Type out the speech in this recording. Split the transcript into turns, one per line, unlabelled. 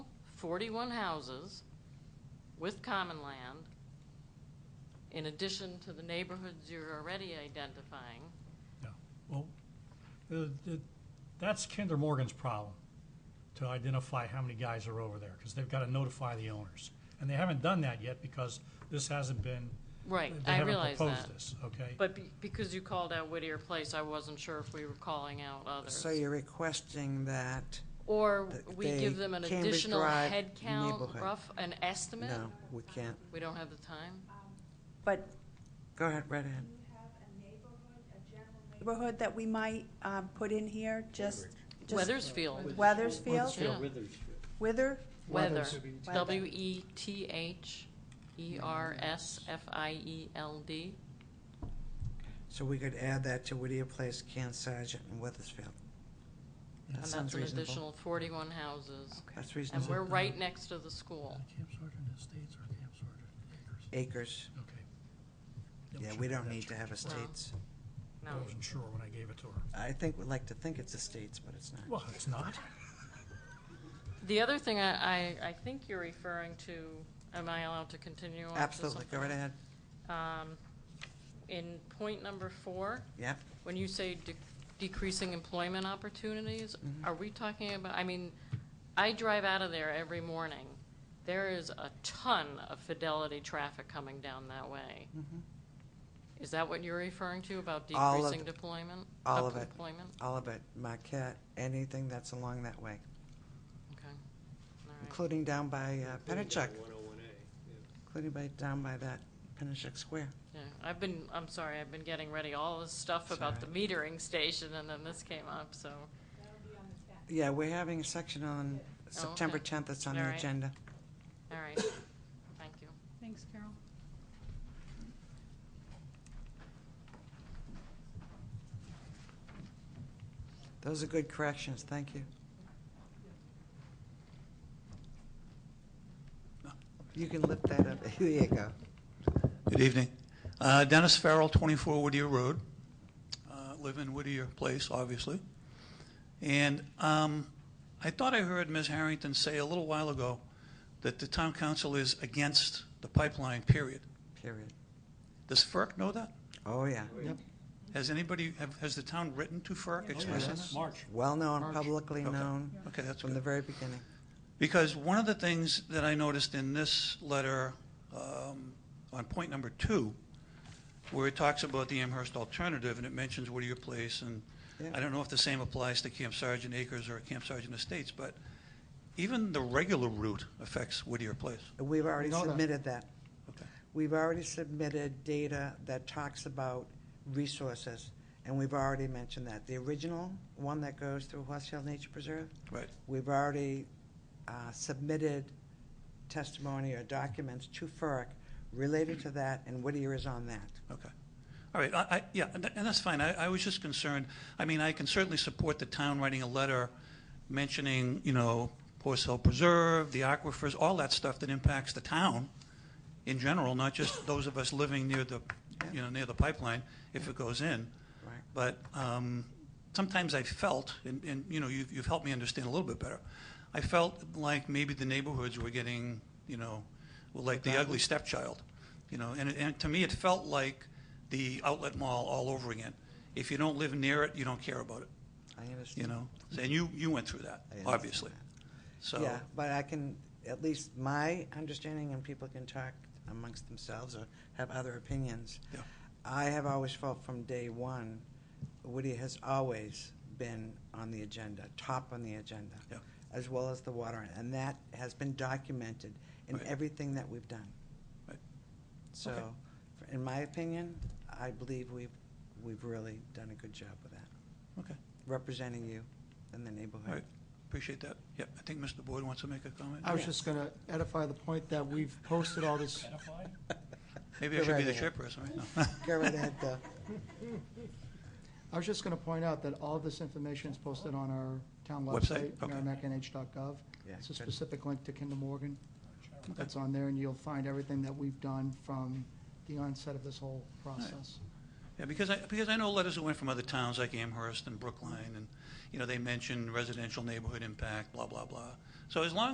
41 houses with common land, in addition to the neighborhoods you're already identifying.
Yeah, well, uh, th- that's Kinder Morgan's problem, to identify how many guys are over there, because they've got to notify the owners. And they haven't done that yet because this hasn't been.
Right,
they
I
haven't
realize
proposed
that.
this, Okay?
But be- because you called out Whittier Place, I wasn't sure if we were calling out others.
So you're requesting that,
Or
th-
we
they-
give them an
Cambridge
additional
Drive
head count,
neighborhood.
rough, an estimate?
no, we can't.
We don't have the time?
But
Go ahead, right ahead.
you have a neighborhood, a general
neighborhood that we might um, put in here, just. just-
Weathersfield,
Weathersfield,
yeah.
Withersfield.
Wither,
Weather, E
Weather.
E W-E-T-H-E-R-S-F-I-E-L-D.
So we could add that to Whittier Place, Can Sargent, and Weathersfield.
And
That
that's
sounds
an
reasonable.
additional forty-one houses.
That's reasonable.
And we're right next to the school.
Camp Sargent Estates or Camp Sargent Acres?
Acres,
Okay.
yeah, we don't need to have estates.
No,
I wasn't sure when I gave it to her.
I think we'd like to think it's estates, but it's not.
Well, it's not.
The other thing I, I, I think you're referring to, am I allowed to continue on to
Absolutely,
something?
go right ahead,
Um, in point number four,
yeah.
when you say de- decreasing employment opportunities,
Mm-hmm.
are we talking about, I mean, I drive out of there every morning. There is a ton of Fidelity traffic coming down that way.
Mhm.
Is that what you're referring to about
All of
decreasing
it.
deployment?
All of it.
Employment?
All of it, Marquette, anything that's along that way,
Okay. All right.
including down by uh, Pennachuck,
One oh one A, yeah.
including by, down by that Pennachuck Square.
Yeah, I've been, I'm sorry, I've been getting ready all this stuff
It's
about the
all
metering station and then this came up, so.
Yeah, we're having a section on September
Oh, okay.
10th, that's on
All
the
right.
agenda.
All right, thank you.
Thanks, Carol.
Those are good corrections, thank you. You can lift that up, there you go.
Good evening. Uh, Dennis Farrell, 24 Whittier Road. Uh, Live in Whittier Place, obviously. And um, I thought I heard Ms. Harrington say a little while ago that the town council is against the pipeline, period.
Period.
Does FERC know that?
Oh, yeah. Yep.
Has anybody, have- has the town written to FERC
Oh,
expressing that?
March.
Well-known,
March.
publicly
Okay.
known,
Okay, that's
from the
good.
very beginning.
Because one of the things that I noticed in this letter, um, on point number two, where it talks about the Amherst alternative, and it mentions Whittier Place, and
Yeah.
I don't know if the same applies to Camp Sargent Acres or Camp Sargent Estates, but even the regular route affects Whittier Place.
We've already
know that.
submitted that.
Okay.
We've already submitted data that talks about resources, and we've already mentioned that. The original one that goes through Horse Hill Nature Preserve,
Right.
We've already uh, submitted testimony or documents to FERC related to that, and Whittier is on that.
Okay. All right, I, I, yeah, and tha- and that's fine. I, I was just concerned, I mean, I can certainly support the town writing a letter mentioning, you know, Horse Hill Preserve, the aquifers, all that stuff that impacts the town in general, not just those of us living near the, you know, near the pipeline, if it goes in.
Right.
But um, sometimes I felt, and, and, you know, you've, you've helped me understand a little bit better. I felt like maybe the neighborhoods were getting, you know, were like the ugly stepchild, you know, and, it- and to me, it felt like the outlet mall all over again. If you don't live near it, you don't care about it,
I understand.
you know? And you, you went through that,
I understand
obviously. So,
Yeah, but I can, at least my understanding, and people can talk amongst themselves or have other opinions.
Yeah.
I have always felt from day one, Whittier has always been on the agenda, top on the agenda,
Yeah.
as well as the water, and that has been documented in
Right.
everything that we've done.
Right. Okay.
So, in my opinion, I believe we've, we've really done a good job with that,
okay,
representing you in the
all right,
neighborhood.
appreciate that. Yep, I think Mr. Boyd wants to make a comment.
I was
Yeah.
just going to edify the point that we've posted all this,
Maybe I
Go
should be
right
the
ahead.
chairperson, right?
Go right ahead, though.
I was just going to point out that all this information is posted on our town
Website?
website,
Okay.
merrimacknh.gov.
Yeah,
It's a
good.
specific link to Kinder Morgan that's on there, and you'll find everything that we've done from the onset of this whole process.
Yeah, because I, because I know letters that went from other towns like Amherst and Brookline, and, you know, they mentioned residential neighborhood impact, blah, blah, blah. So as long